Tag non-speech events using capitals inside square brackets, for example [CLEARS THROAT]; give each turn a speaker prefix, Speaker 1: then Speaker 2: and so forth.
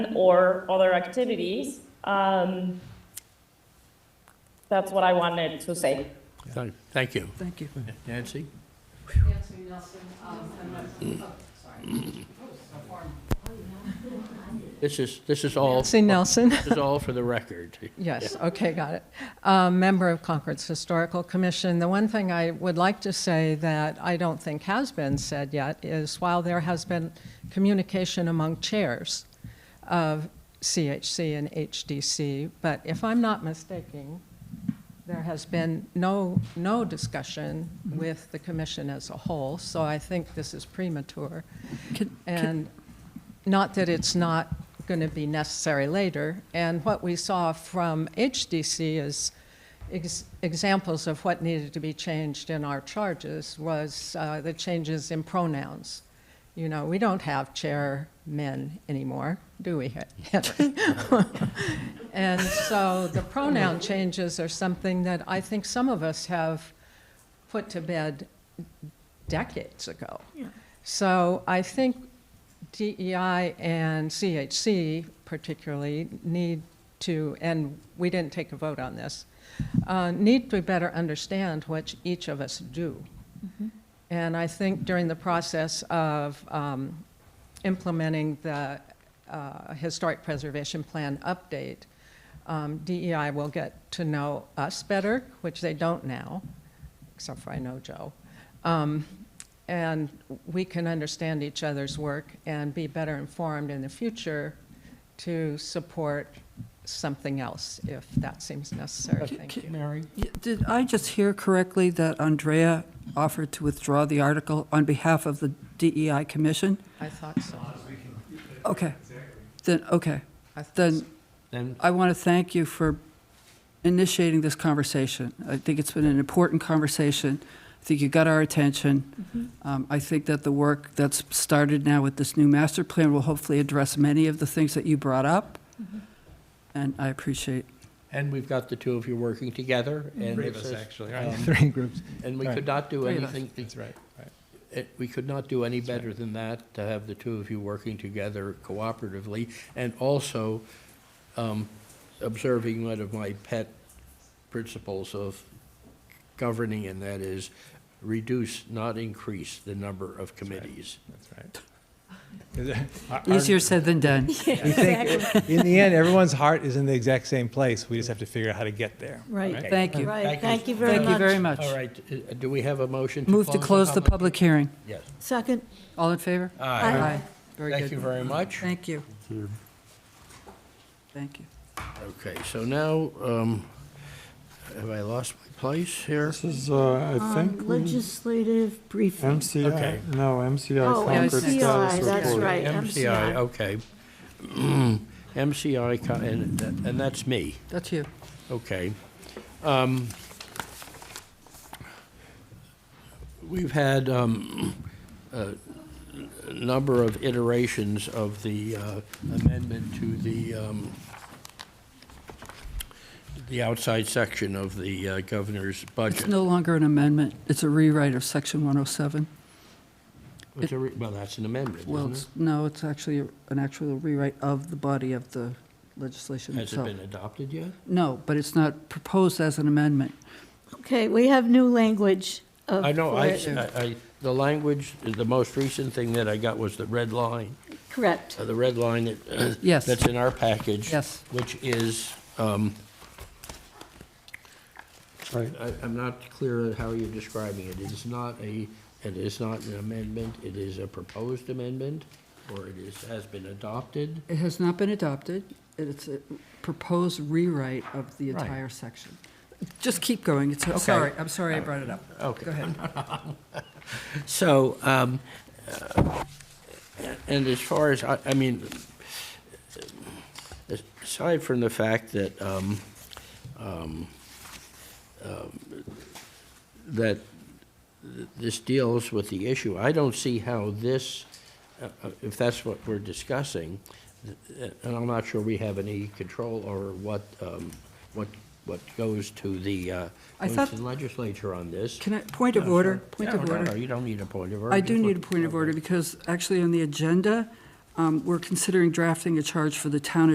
Speaker 1: or other activities. Um, That's what I wanted to say.
Speaker 2: Thank- Thank you.
Speaker 3: Thank you.
Speaker 2: Nancy?
Speaker 4: Nancy Nelson, um, I'm not, oh, sorry.
Speaker 2: This is, this is all,
Speaker 3: Nancy
Speaker 2: this [LAUGHS]
Speaker 3: Nelson,
Speaker 2: is all for the record.
Speaker 3: yes, okay, got it. Uh, Member of Concord's Historical Commission. The one thing I would like to say that I don't think has been said yet is while there has been communication among chairs of CHC and HDC, but if I'm not mistaken, there has been no, no discussion with the commission as a whole, so I think this is premature.
Speaker 5: Can-
Speaker 3: And not that it's not going to be necessary later. And what we saw from HDC is ex- examples of what needed to be changed in our charges was uh, the changes in pronouns. You know, we don't have chairmen anymore, do we, [LAUGHS] Henry? And so the pronoun changes are something that I think some of us have put to bed decades ago. So I think DEI E and CHC particularly need to, and we didn't take a vote on this, uh, need to better understand what each of us do. And I think during the process of um, implementing the uh, Historic Preservation Plan update, um, DEI will get to know us better, which they don't now, except for I know Joe. Um, And we can understand each other's work and be better informed in the future to support something else, if that seems necessary. Thank you.
Speaker 2: Mary?
Speaker 5: Yeah, Did I just hear correctly that Andrea offered to withdraw the article on behalf of the DEI Commission?
Speaker 3: I thought so.
Speaker 5: Okay. Then, okay.
Speaker 3: I thought
Speaker 5: Then
Speaker 2: Then,
Speaker 5: I want to thank you for initiating this conversation. I think it's been an important conversation. I think you got our attention. Um, I think that the work that's started now with this new master plan will hopefully address many of the things that you brought up. And I appreciate
Speaker 2: and we've got the two of you working together. and
Speaker 6: Three
Speaker 2: it
Speaker 6: of us,
Speaker 2: says-
Speaker 6: actually, right?
Speaker 2: um,
Speaker 6: Three groups.
Speaker 2: And we
Speaker 6: Right.
Speaker 2: could not do
Speaker 5: Three of us.
Speaker 2: anything,
Speaker 6: That's right, right.
Speaker 2: it- we could not do any better than that, to have the two of you working together cooperatively, and also um, observing one of my pet principles of governing, and that is reduce, not increase, the number of committees.
Speaker 6: That's right. Our- our-
Speaker 5: easier said than done.
Speaker 6: We think, in the end, everyone's heart is in the exact same place. We just have to figure out how to get there.
Speaker 5: Right. [LAUGHS] Thank you.
Speaker 2: Thank
Speaker 7: Right,
Speaker 2: you.
Speaker 7: thank you very much.
Speaker 5: Thank you very much.
Speaker 2: All right, uh, do we have a motion to close?
Speaker 5: Move to close the public hearing.
Speaker 2: Yes.
Speaker 7: Second.
Speaker 5: All in favor?
Speaker 2: Aye.
Speaker 5: Very
Speaker 2: Thank you
Speaker 5: good.
Speaker 2: very much.
Speaker 5: Thank you. Thank you.
Speaker 2: Okay, so now, um, have I lost my place here?
Speaker 8: This is, uh, I
Speaker 7: Um,
Speaker 5: Mm-hmm.
Speaker 8: think, we-
Speaker 7: Legislative briefing.
Speaker 2: Okay.
Speaker 8: MCI, no, MCI
Speaker 7: Oh,
Speaker 8: Concord
Speaker 7: MCI,
Speaker 8: Status
Speaker 7: that's
Speaker 8: Report.
Speaker 7: right,
Speaker 2: MCI,
Speaker 7: MCI.
Speaker 2: okay. [CLEARS THROAT] MCI, co- and, that- and that's me,
Speaker 5: That's you.
Speaker 2: okay. Um, We've had um, a number of iterations of the uh, amendment to the, um, the outside section of the uh, governor's
Speaker 5: It's
Speaker 2: budget.
Speaker 5: no longer an amendment. It's a rewrite of Section 107.
Speaker 2: It's a re- Well, that's an amendment,
Speaker 5: Well,
Speaker 2: isn't
Speaker 5: it's, no, it's actually an actual rewrite of the body of the legislation
Speaker 2: it? Has it
Speaker 5: itself.
Speaker 2: been adopted yet?
Speaker 5: No, but it's not proposed as an amendment.
Speaker 7: Okay, we have new language of.
Speaker 2: I know, I,
Speaker 7: for it.
Speaker 2: I, I- the language, the most recent thing that I got was the red line,
Speaker 7: Correct.
Speaker 2: uh, the red line that.
Speaker 5: Yes.
Speaker 2: That's in our package.
Speaker 5: Yes.
Speaker 2: Which is, um,
Speaker 8: Right.
Speaker 2: I, I'm not clear on how you're describing it. It is not a, it is not an amendment, it is a proposed amendment, or it is, has been adopted.
Speaker 5: It has not been adopted. It's a proposed rewrite of the
Speaker 2: Right.
Speaker 5: entire section. Just keep going. It's, sorry, I'm sorry I brought it up.
Speaker 2: Okay.
Speaker 5: Go ahead.
Speaker 2: So, um, uh, and as far as, I, I mean, aside from the fact that, um, um, um, that this deals with the issue, I don't see how this, uh, uh, if that's what we're discussing, uh, and I'm not sure we have any control over what, um, what, what goes to the, uh,
Speaker 5: I
Speaker 2: goes
Speaker 5: thought-
Speaker 2: to the legislature on this.
Speaker 5: Can I, point of
Speaker 2: No,
Speaker 5: order,
Speaker 2: sure.
Speaker 5: point
Speaker 2: No,
Speaker 5: of
Speaker 2: no, no,
Speaker 5: order.
Speaker 2: you don't need a point of order.
Speaker 5: I
Speaker 2: Just
Speaker 5: do
Speaker 2: look-
Speaker 5: need a point of order because actually on the agenda, um, we're considering drafting a charge for the town